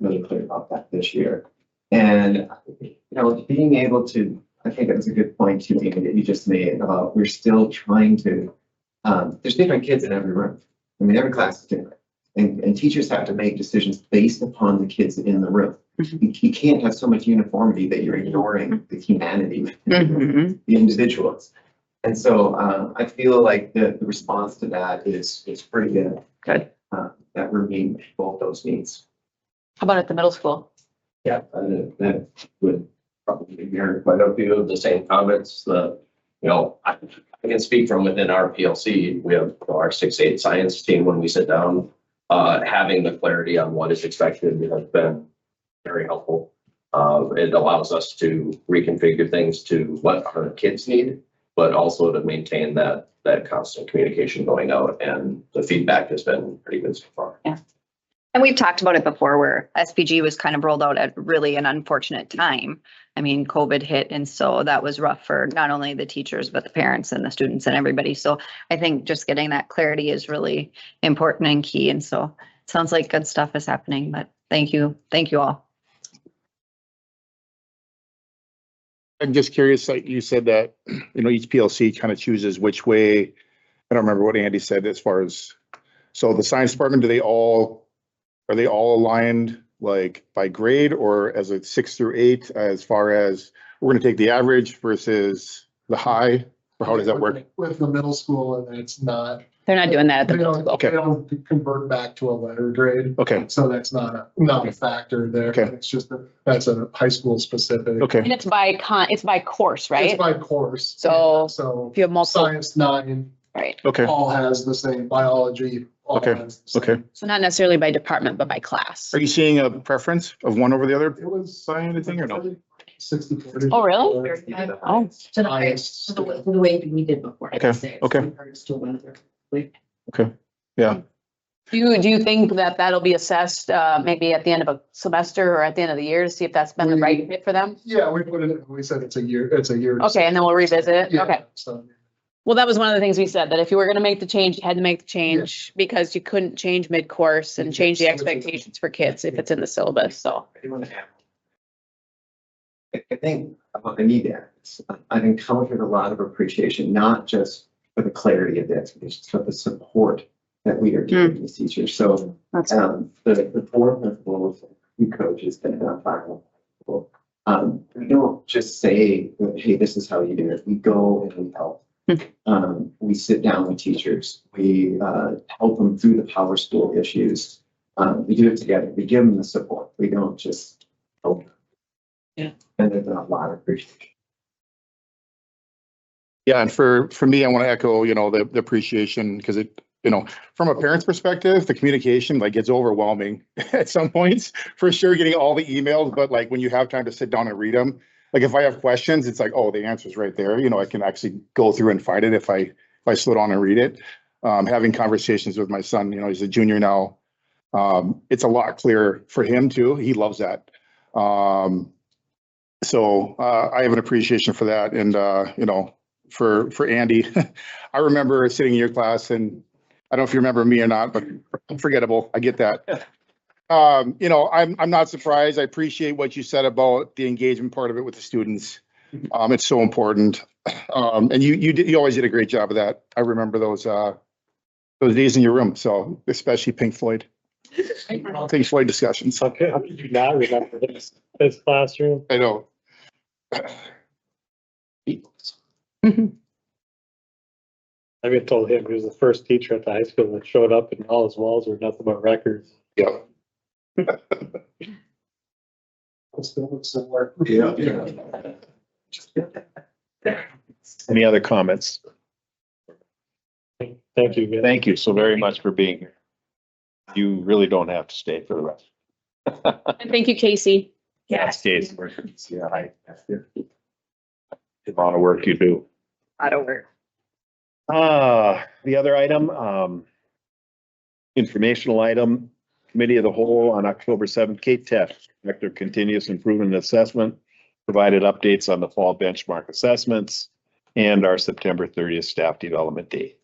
really clear about that this year. And, you know, being able to, I think it was a good point too, Amy, that you just made about, we're still trying to, um, there's different kids in every room. I mean, every class is different. And, and teachers have to make decisions based upon the kids in the room. You you can't have so much uniformity that you're ignoring the humanity Mm-hmm. Mhm. the individuals. And so uh, I feel like the, the response to that is, is pretty good. Good. Uh, That we're meeting both those needs. How about at the middle school? Yeah, and it- that would probably mirror quite a few of the same comments, the, you know, I, I can speak from within our PLC, we have our six, eight science team, when we sit down, uh, having the clarity on what is expected has been very helpful. Uh, it allows us to reconfigure things to what our kids need, but also to maintain that, that constant communication going out, and the feedback has been pretty good so far. And we've talked about it before where SPG was kind of rolled out at really an unfortunate time. I mean, COVID hit and so that was rough for not only the teachers, but the parents and the students and everybody. So I think just getting that clarity is really important and key. And so it sounds like good stuff is happening, but thank you. Thank you all. I'm just curious, like you said that, you know, each PLC kind of chooses which way. I don't remember what Andy said as far as, so the science department, do they all, are they all aligned like by grade or as a six through eight as far as we're going to take the average versus the high? Or how does that work? With the middle school and it's not, They're not doing that at the they middle school. don't, they don't convert back to a letter grade. Okay, So that's not, a not a factor there. Okay. It's just, a- that's a high school specific. okay, And it's by con, it's by course, It's right? by course. So- So If you have multiple, science nine, right? okay, all has the same biology. all Okay, has the same. okay. So not necessarily by department, but by class. Are you seeing a preference of one over the other? It was. Sign anything or no? Sixty forty. Oh, really? Oh. To the, way- Highest. to the way, to the way we did before. I Okay, would say, okay. in regards to whether- Do you, do you think that that'll be assessed, uh, maybe at the end of a semester or at the end of the year to see if that's been the right fit for them? Yeah, we put it, we said it's a year, it's a year. Okay, and then we'll revisit it. Yeah, Okay. So. Well, that was one of the things we said, that if you were gonna make the change, you had to make the change because you couldn't change mid-course and Yes, change the which is- expectations for kids if it's in the syllabus, so. I- I think, I need that. I've encountered a lot of appreciation, not just for the clarity of the expectations, but the support that we are giving these teachers. So That's um, the, the board principals, you coaches that are final. Um, we don't just say, hey, this is how you do it. We go and we help. Um, we sit down with teachers. We, uh, help them through the power school issues. Um, we do it together. We give them the support. We don't just help. them. Yeah. And there's been a lot of appreciation. Yeah, and for, for me, I want to echo, you know, the, the appreciation, because it, you know, from a parent's perspective, the communication like gets overwhelming at some points, for sure, getting all the emails, but like when you have time to sit down and read them, like if I have questions, it's like, oh, the answer's right there, you know, I can actually go through and find it if I, if I slow down and read it. Um, having conversations with my son, you know, he's a junior now. Um, it's a lot clearer for him too, he loves that. Um, so, uh, I have an appreciation for that and, uh, you know, for for Andy. I remember sitting in your class and I don't know if you remember me or not, but forgettable. I get that. Um, you know, I'm I'm not surprised. I appreciate what you said about the engagement part of it with the students. Um, it's so important. Um, and you you did you always did a great job of that. I remember those uh those days in your room, so especially Pink Floyd, Pink Floyd discussions. How could, how could you not remember this, this classroom? I know. I even told him, he was the first teacher at the high school that showed up and all his walls were nothing but records. Yeah. It's still similar. Yeah. Any other comments? Thank you. guys. Thank you so very much for being here. You really don't have to stay for the rest. And thank you, Casey. Yes. Days. Yeah, I. The amount of work you do. Lot of work. Uh, the other item, um, informational item, committee of the whole on October seventh, Kate Teff, Director of Continuous Improvement and Assessment, provided updates on the fall benchmark assessments and our September thirtieth staff development day.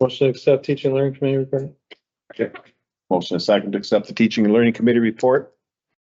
Motion to accept teaching and learning committee report. Motion and second to accept the Teaching and Learning Committee report.